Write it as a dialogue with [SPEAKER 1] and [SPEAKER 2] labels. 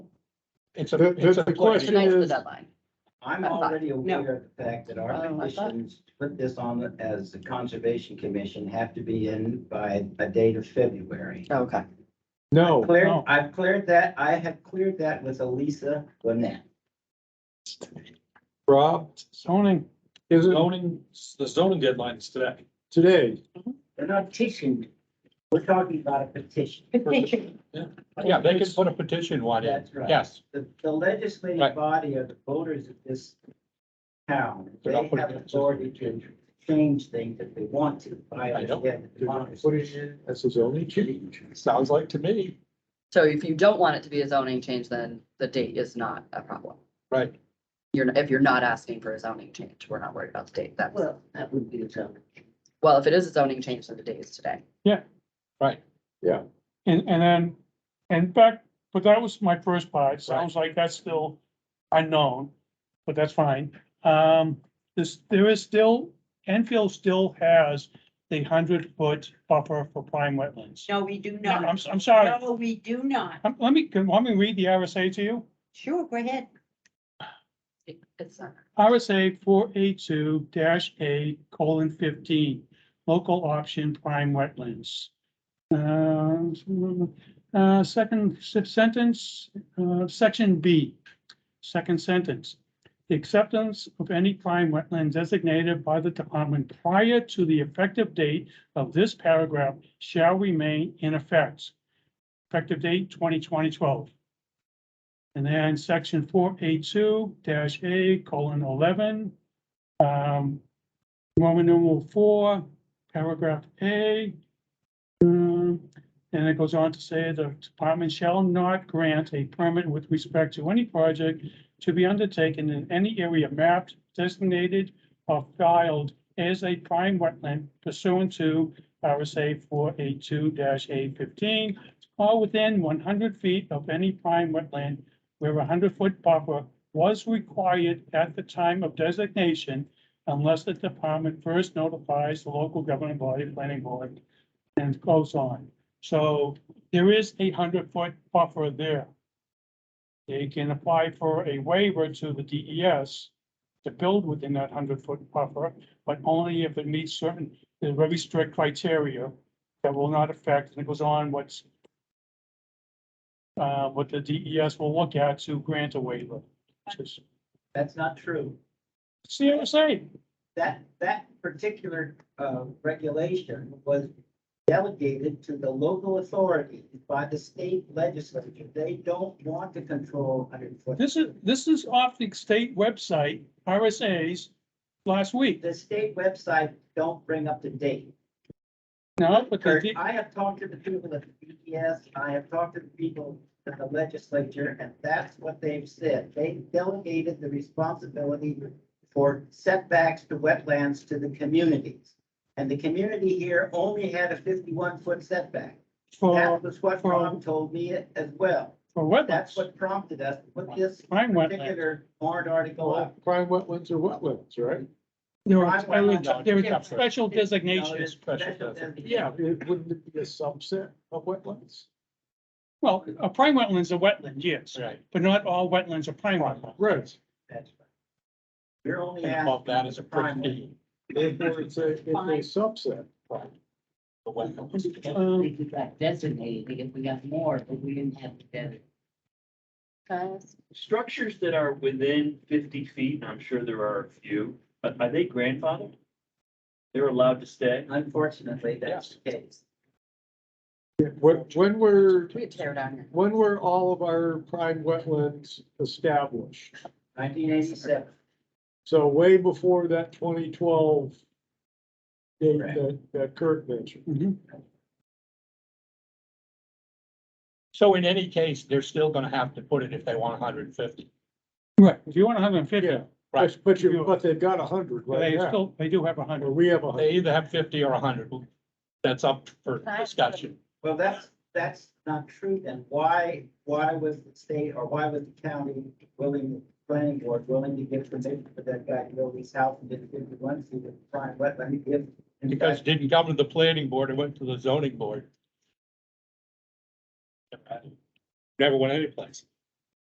[SPEAKER 1] It's a,
[SPEAKER 2] The- the-
[SPEAKER 1] it's a
[SPEAKER 2] the
[SPEAKER 1] pledge.
[SPEAKER 2] question-
[SPEAKER 3] Tonight's the
[SPEAKER 2] is-
[SPEAKER 3] deadline.
[SPEAKER 4] I'm
[SPEAKER 3] That's fine.
[SPEAKER 4] already
[SPEAKER 3] No.
[SPEAKER 4] aware of the fact that
[SPEAKER 3] Oh,
[SPEAKER 4] our
[SPEAKER 3] I thought-
[SPEAKER 4] conditions, to put this on as the Conservation Commission, have to be in by a date of February.
[SPEAKER 3] Oh, Okay.
[SPEAKER 2] No,
[SPEAKER 4] Clear,
[SPEAKER 1] Oh, no.
[SPEAKER 4] I've cleared that, I have cleared that with Elisa Lynette.
[SPEAKER 2] Rob,
[SPEAKER 1] Zoning,
[SPEAKER 2] is it
[SPEAKER 1] zoning, the zoning deadline is today.
[SPEAKER 2] today?
[SPEAKER 4] They're not petitioned, we're talking about a petition.
[SPEAKER 3] Petition.
[SPEAKER 1] Yeah, they can put a petition one in,
[SPEAKER 4] That's right.
[SPEAKER 1] yes.
[SPEAKER 4] The, the legislative
[SPEAKER 1] Right.
[SPEAKER 4] body are the voters of this town,
[SPEAKER 1] They're
[SPEAKER 4] they
[SPEAKER 1] not putting
[SPEAKER 4] have
[SPEAKER 1] it-
[SPEAKER 4] authority to change things if they want to. I
[SPEAKER 1] I know.
[SPEAKER 4] understand the
[SPEAKER 2] What is
[SPEAKER 4] democracy.
[SPEAKER 2] it? That's his only change.
[SPEAKER 1] Sounds like to me,
[SPEAKER 3] So if you don't want it to be a zoning change, then the date is not a problem.
[SPEAKER 1] right,
[SPEAKER 3] You're, if you're not asking for a zoning change, we're not worried about the date. That's,
[SPEAKER 4] Well, that would be a challenge.
[SPEAKER 3] well, if it is a zoning change, then the date is today.
[SPEAKER 1] right.
[SPEAKER 5] And, and then, and back, but that was my first part, It sounds like that's still unknown, but that's fine. Um, this, there is still, Enfield still has the hundred foot buffer for prime wetlands.
[SPEAKER 6] No, we do
[SPEAKER 5] No, I'm,
[SPEAKER 6] not.
[SPEAKER 5] s- I'm sorry,
[SPEAKER 6] No, we do not.
[SPEAKER 5] Um, let me, can, let me read the RSA to you.
[SPEAKER 6] Sure, go ahead.
[SPEAKER 3] It- It's not.
[SPEAKER 5] RSA four eight two dash A colon fifteen, local option prime wetlands. Uh, uh, second se- sentence, uh, section B, second sentence. The acceptance of any prime wetland designated by the department prior to the effective date of this paragraph shall remain in effect. Effective date 2020 12. And then section four eight two dash A colon eleven. Um, Roman numeral four, paragraph A. Um, and it goes on to say the department shall not grant a permit with respect to any project to be undertaken in any area mapped, designated, or filed as a prime wetland pursuant to RSA four eight two dash A fifteen or within one hundred feet of any prime wetland where a hundred-foot buffer was required at the time of designation unless the department first notifies the local governing body, planning board, and goes on. So there is a hundred-foot buffer there. They can apply for a waiver to the DES to build within that hundred-foot buffer, but only if it meets certain, there's very strict criteria that will not affect, and it goes on what's uh, what the DES will look at to grant a waiver. which is-
[SPEAKER 4] That's not true.
[SPEAKER 5] It's the RSA.
[SPEAKER 4] that, that particular, uh, regulation was delegated to the local authority by the state legislature. They don't want to control hundred foot.
[SPEAKER 5] This is, this is off the state website, RSA's, last week.
[SPEAKER 4] The state website don't bring up to date.
[SPEAKER 5] No, but the
[SPEAKER 4] Kurt,
[SPEAKER 5] D-
[SPEAKER 4] I have talked to the people at the BES, I have talked to the people at the legislature, and that's what they've said. They delegated the responsibility for setbacks to wetlands to the communities. And the community here only had a fifty-one foot setback. That
[SPEAKER 5] for,
[SPEAKER 4] was what
[SPEAKER 5] for-
[SPEAKER 4] Ron told me as well.
[SPEAKER 5] for
[SPEAKER 4] That's
[SPEAKER 5] wetlands,
[SPEAKER 4] what prompted us to put this
[SPEAKER 5] prime wetlands.
[SPEAKER 4] particular warrant article up.
[SPEAKER 2] Prime wetlands are wetlands, right?
[SPEAKER 5] There
[SPEAKER 4] prime
[SPEAKER 5] are,
[SPEAKER 4] wetlands.
[SPEAKER 5] there
[SPEAKER 4] Yeah.
[SPEAKER 5] are special
[SPEAKER 4] No,
[SPEAKER 5] designations.
[SPEAKER 4] it's special designation.
[SPEAKER 2] Yeah, it wouldn't it be a subset of wetlands?
[SPEAKER 5] Well, a prime wetland's a wetland, yes,
[SPEAKER 1] Right.
[SPEAKER 5] but not all wetlands are prime wetlands.
[SPEAKER 2] Right.
[SPEAKER 4] That's right. You're only
[SPEAKER 1] And above
[SPEAKER 4] asking
[SPEAKER 1] that is
[SPEAKER 4] for
[SPEAKER 1] a
[SPEAKER 4] prime.
[SPEAKER 1] pretty.
[SPEAKER 2] Therefore, it's a, it's a subset.
[SPEAKER 1] the wetland.
[SPEAKER 5] Um,
[SPEAKER 7] We got designated, because we got more, but we didn't have the designation.
[SPEAKER 3] Guys,
[SPEAKER 8] structures that are within fifty feet, and I'm sure there are a few, but are they grandfathered? They're allowed to stay?
[SPEAKER 4] Unfortunately, that's the case.
[SPEAKER 2] When, when were,
[SPEAKER 3] we could tear down here.
[SPEAKER 2] when were all of our prime wetlands established?
[SPEAKER 4] Nineteen eighty-seven.
[SPEAKER 2] So way before that twenty twelve date
[SPEAKER 4] Right.
[SPEAKER 2] that, that Kurt mentioned.
[SPEAKER 5] Mhm.
[SPEAKER 1] So in any case, they're still gonna have to put it if they want hundred and fifty.
[SPEAKER 5] Right, if you want hundred and fifty,
[SPEAKER 2] Yeah.
[SPEAKER 1] Right.
[SPEAKER 2] But you, but they've got a hundred right
[SPEAKER 5] they
[SPEAKER 2] now,
[SPEAKER 5] still, they do have a hundred.
[SPEAKER 2] or we have a hundred.
[SPEAKER 1] They either have fifty or hundred. That's up for discussion.
[SPEAKER 4] Well, that's, that's not true then. Why, why was the state or why was the county willing, the planning board willing to give permission for that guy to build his house and did fifty-one feet of prime wetland? If, in
[SPEAKER 1] Because it
[SPEAKER 4] fact,
[SPEAKER 1] didn't come to the planning board, it went to the zoning board. Never went anyplace.